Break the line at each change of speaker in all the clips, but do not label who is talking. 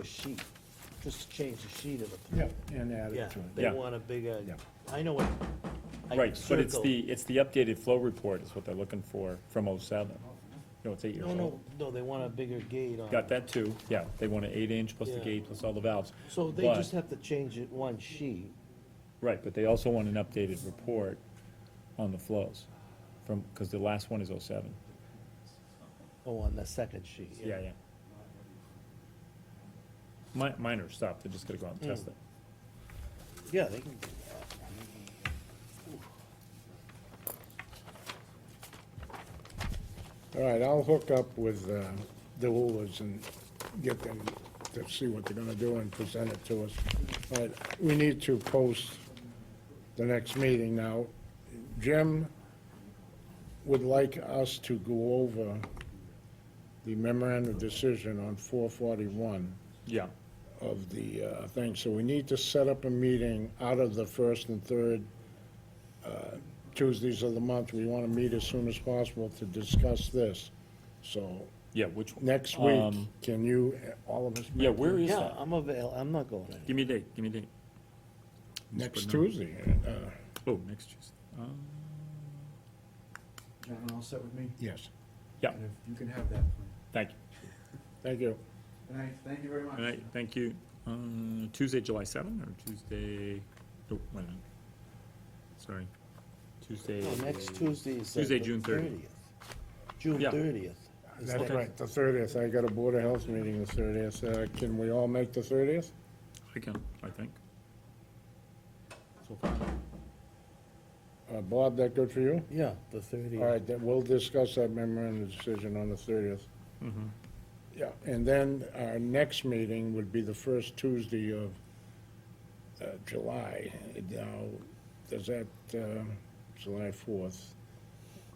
a sheet, just change the sheet of the plan.
Yep, and add
Yeah,
it to it.
they
Yeah.
want a bigger,
Yeah.
I know what. I
Right, but it's
circled.
the, it's the updated flow report is what they're looking for from oh oh-seven. No, it's eight years
No,
old.
no, no, they want a bigger gate on.
Got that too, yeah, they want an eight-inch plus the
Yeah.
gate plus all the valves.
So they
But-
just have to change it one sheet.
Right, but they also want an updated report on the flows from, because the last one is oh-seven.
Oh, on the second sheet.
Yeah, yeah. Mi- Minor stuff, they're just gonna go out and
Mm.
test it.
Yeah, they can,
All right, I'll hook up with uh, the Woolers and get them to see what they're gonna do and present it to us. But we need to post the next meeting now. Jim would like us to go over the memorandum decision on four forty-one
Yeah,
of the uh, thing, so we need to set up a meeting out of the first and third uh, Tuesdays of the month. We want to meet as soon as possible to discuss this. So
yeah, which,
next week,
Um,
can you, uh, all of us?
yeah,
make
where
it?
is
yeah,
that?
I'm avail, I'm not going anywhere.
Give me a date, give me a date.
Next Tuesday. uh,
Oh, next Tuesday. Um,
Everyone all set with me?
Yes,
Yeah,
And if you can have that plan.
thank you.
thank you.
Good night, thank you very much.
All right, thank you. Uh, Tuesday, July 7 or Tuesday, oh, wait a minute. Sorry. Tuesday.
No, Next Tuesday is. uh,
Tuesday,
the
June 30th.
June
Yeah.
thirtieth.
That's right, the thirtieth. I got a Board of Health meeting the thirtieth. Uh, Can we all make the thirtieth?
I can, I think. So far.
Uh, Bob, that good for you?
Yeah, the thirtieth.
All right, then we'll discuss that memorandum decision on the thirtieth. Yeah, and then our next meeting would be the first Tuesday of uh, July. Now, does that, um, July fourth?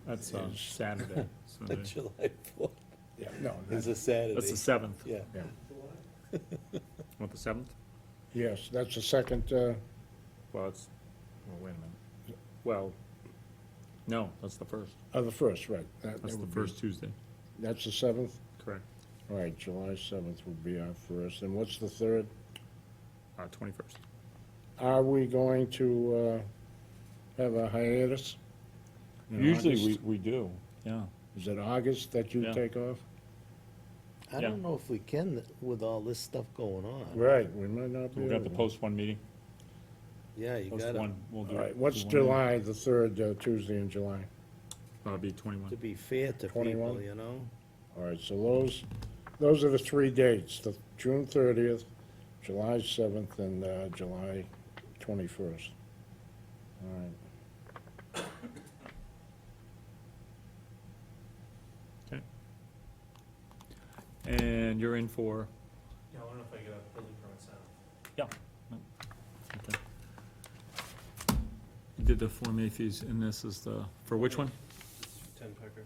That's uh, Saturday. so the-
July fourth
Yeah, no,
is
that's,
a
That's
Saturday,
the 7th.
yeah.
yeah.
What, the 7th?
yes, that's the second, uh,
Well, it's, well, wait a minute. Well, no, that's the 1st.
oh, the first, right. That-
That's
that
the
would be-
first Tuesday.
That's the seventh?
Correct.
All right, July seventh would be our first. And what's the third?
Uh, 21st.
Are we going to uh, have a hiatus? in August?
we do. Yeah.
Is it August that you
Yeah.
take off?
I
Yeah.
don't know if we can with all this stuff going on.
Right, we might not be.
We're gonna have to
able
post one meeting.
Yeah, you
Post
gotta,
one. We'll do
All right,
do
what's
one.
July, the third uh, Tuesday in July?
That'll Uh, be 21.
to be fair to people,
21.
you know?
All right, so those, those are the three dates, the June thirtieth, July seventh, and uh, July twenty-first. All right.
And you're in for,
Yeah, I don't know if I get a building permit sound.
yeah. Okay. You did the Form A fees, and this is the, for which one?
Ten Pecker.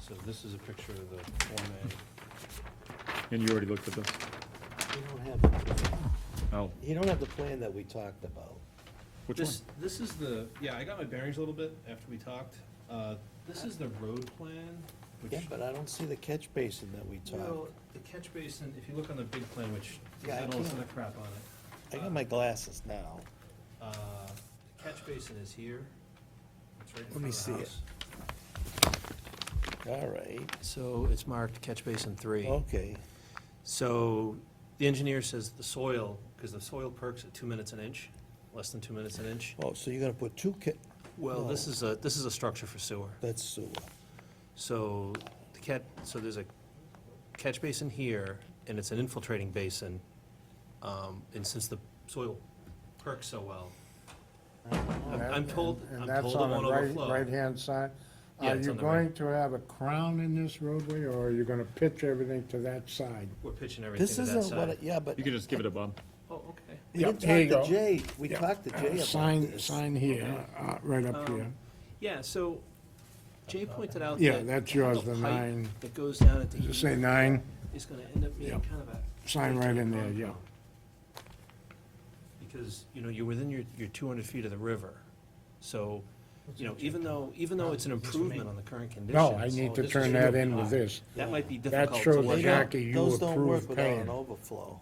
So this is a picture of the Form A.
And you already looked at this?
You don't have,
Oh,
you don't have the plan that we talked about.
which one?
This, this is the, yeah, I got my bearings a little bit after we talked. Uh, This is the road plan,
Yeah,
which,
but I don't see the catch basin that we
well,
talked.
the catch basin, if you look on the big plan, which
Yeah, I
had all this
can't-
other crap on it.
I got my glasses now.
Uh, The catch basin is here. It's right in
Let
front
me
of the
see it.
house.
All right,
So it's marked catch basin three.
okay.
So the engineer says the soil, because the soil perks at two minutes an inch, less than two minutes an inch.
Oh, so you're gonna put two ca,
Well, this
No.
is a, this is a structure for sewer.
that's sewer.
So the cat, so there's a catch basin here, and it's an infiltrating basin. Um, And since the soil perks so well, I'm I'm told,
And-
I'm
And that's
told it
on
won't
the right,
overflow.
right-hand side?
Yeah,
Are
it's
you
on the right.
going to have a crown in this roadway, or are you gonna pitch everything to that side?
We're pitching everything
This
to that
isn't what,
side.
it- yeah, but
You
we
can just give it a bump.
Oh, okay.
didn't
Yep, there you
talk to
go.
Jay, we
Yep.
talked to
Uh,
Jay about
Sign,
this.
sign here, uh, right
Um,
up here.
Yeah, so Jay pointed out that.
Yeah, that's yours,
the
the
pipe
nine.
That goes down at the.
Does it
end
say nine?
Is gonna end up being
Yeah.
kind of a.
Sign right in there, yeah.
Because, you know, you're within your, your two hundred feet of the river, so you know, even though, even though it's an improvement on the current conditions. oh,
No, I need
this
to
is
turn
true.
that in with this.
That might be
That
difficult to
shows
work out.
Jackie you
Those don't work
approved
without
paying.
an overflow.